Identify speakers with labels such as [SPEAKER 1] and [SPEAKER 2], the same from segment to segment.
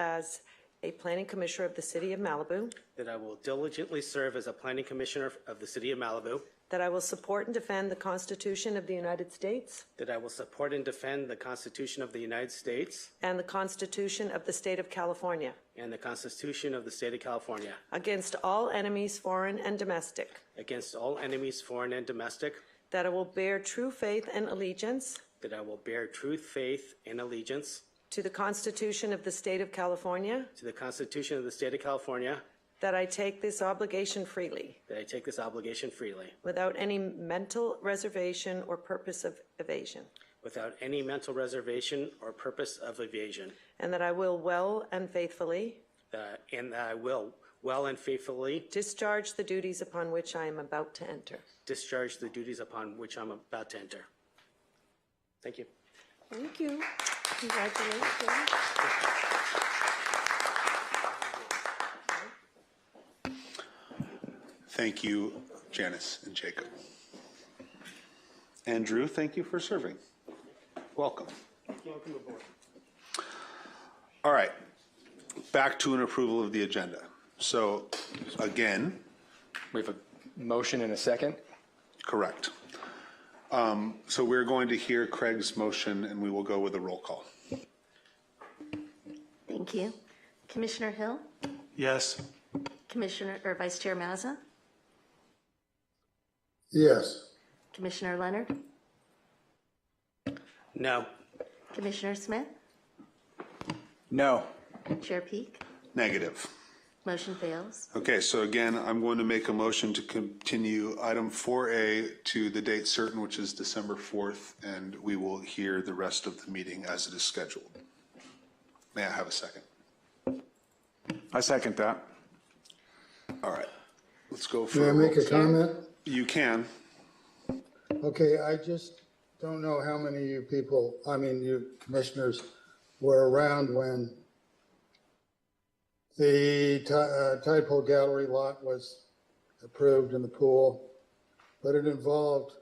[SPEAKER 1] as a planning commissioner of the city of Malibu,
[SPEAKER 2] that I will diligently serve as a planning commissioner of the city of Malibu,
[SPEAKER 1] that I will support and defend the Constitution of the United States
[SPEAKER 2] that I will support and defend the Constitution of the United States
[SPEAKER 1] and the Constitution of the state of California
[SPEAKER 2] and the Constitution of the state of California
[SPEAKER 1] against all enemies, foreign and domestic,
[SPEAKER 2] against all enemies, foreign and domestic,
[SPEAKER 1] that I will bear true faith and allegiance
[SPEAKER 2] that I will bear true faith and allegiance
[SPEAKER 1] to the Constitution of the state of California,
[SPEAKER 2] to the Constitution of the state of California,
[SPEAKER 1] that I take this obligation freely
[SPEAKER 2] that I take this obligation freely
[SPEAKER 1] without any mental reservation or purpose of evasion,
[SPEAKER 2] without any mental reservation or purpose of evasion,
[SPEAKER 1] and that I will well and faithfully
[SPEAKER 2] that- and that I will well and faithfully
[SPEAKER 1] discharge the duties upon which I am about to enter.
[SPEAKER 2] discharge the duties upon which I'm about to enter. Thank you.
[SPEAKER 1] Thank you. Congratulations.
[SPEAKER 3] Thank you, Janice and Jacob. And Drew, thank you for serving. Welcome.
[SPEAKER 2] Welcome aboard.
[SPEAKER 3] All right, back to an approval of the agenda. So again,
[SPEAKER 4] We have a motion and a second.
[SPEAKER 3] correct. Um, So we're going to hear Craig's motion and we will go with a roll call.
[SPEAKER 5] Thank you. Commissioner Hill,
[SPEAKER 3] Yes.
[SPEAKER 5] Commissioner, or Vice Chair Mazza,
[SPEAKER 6] Yes.
[SPEAKER 5] Commissioner Leonard,
[SPEAKER 2] No.
[SPEAKER 5] Commissioner Smith,
[SPEAKER 4] No.
[SPEAKER 5] Chair Peak.
[SPEAKER 3] Negative.
[SPEAKER 5] Motion fails.
[SPEAKER 3] Okay, so again, I'm going to make a motion to continue item 4A to the date certain, which is December 4th, and we will hear the rest of the meeting as it is scheduled. May I have a second?
[SPEAKER 7] I second that.
[SPEAKER 3] All right, let's go for.
[SPEAKER 6] May I make a
[SPEAKER 3] roll.
[SPEAKER 6] comment?
[SPEAKER 3] You can.
[SPEAKER 6] Okay, I just don't know how many of you people, I mean, you commissioners were around when the Ti- uh, Tide Pool Gallery lot was approved in the pool, but it involved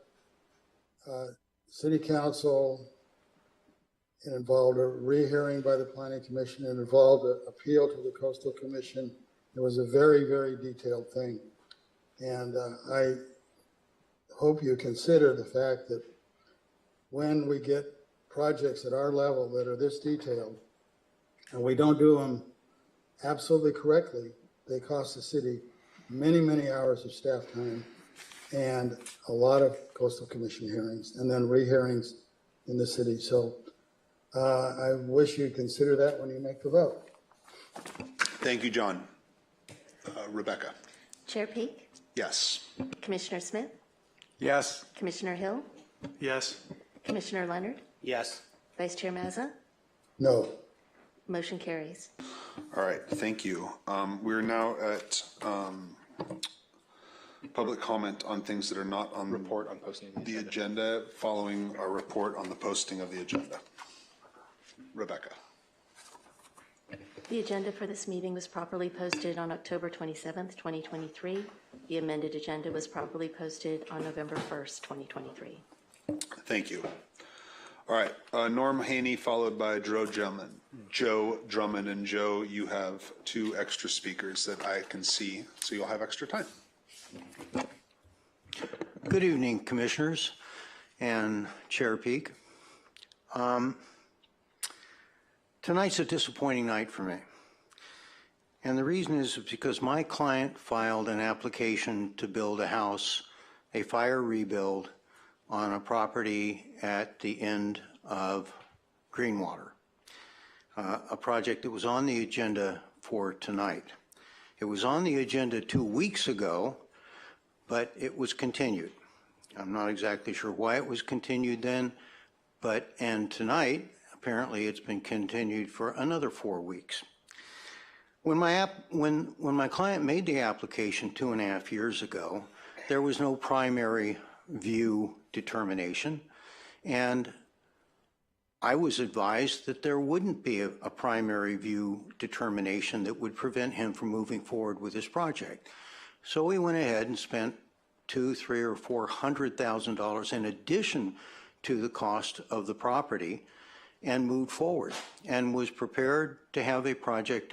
[SPEAKER 6] uh, city council, it involved a rehearing by the planning commission, it involved an appeal to the coastal commission. It was a very, very detailed thing. And uh, I hope you consider the fact that when we get projects at our level that are this detailed, and we don't do them absolutely correctly, they cost the city many, many hours of staff time and a lot of coastal commission hearings and then rehearings in the city. So uh, I wish you'd consider that when you make the vote.
[SPEAKER 3] Thank you, John. Uh, Rebecca,
[SPEAKER 5] Chair Peak,
[SPEAKER 3] yes.
[SPEAKER 5] Commissioner Smith,
[SPEAKER 7] Yes.
[SPEAKER 5] Commissioner Hill,
[SPEAKER 7] Yes.
[SPEAKER 5] Commissioner Leonard,
[SPEAKER 2] Yes.
[SPEAKER 5] Vice Chair Mazza,
[SPEAKER 6] No.
[SPEAKER 5] motion carries.
[SPEAKER 3] All right, thank you. Um, We're now at um, public comment on things that are not on.
[SPEAKER 4] Report on posting of the
[SPEAKER 3] The agenda, following our report on the posting of the agenda. Rebecca,
[SPEAKER 5] The agenda for this meeting was properly posted on October 27th, 2023. The amended agenda was properly posted on November 1st, 2023.
[SPEAKER 3] thank you. All right, uh, Norm Haney followed by Joe Drummond. Joe Drummond, and Joe, you have two extra speakers that I can see, so you'll have extra time.
[SPEAKER 8] Good evening, Commissioners and Chair Peak. Um, Tonight's a disappointing night for me. And the reason is because my client filed an application to build a house, a fire rebuild, on a property at the end of Greenwater, uh, a project that was on the agenda for tonight. It was on the agenda two weeks ago, but it was continued. I'm not exactly sure why it was continued then, but, and tonight, apparently it's been continued for another four weeks. When my app, when, when my client made the application two and a half years ago, there was no primary view determination, and I was advised that there wouldn't be a, a primary view determination that would prevent him from moving forward with his project. So we went ahead and spent two, three, or four hundred thousand dollars in addition to the cost of the property and moved forward and was prepared to have a project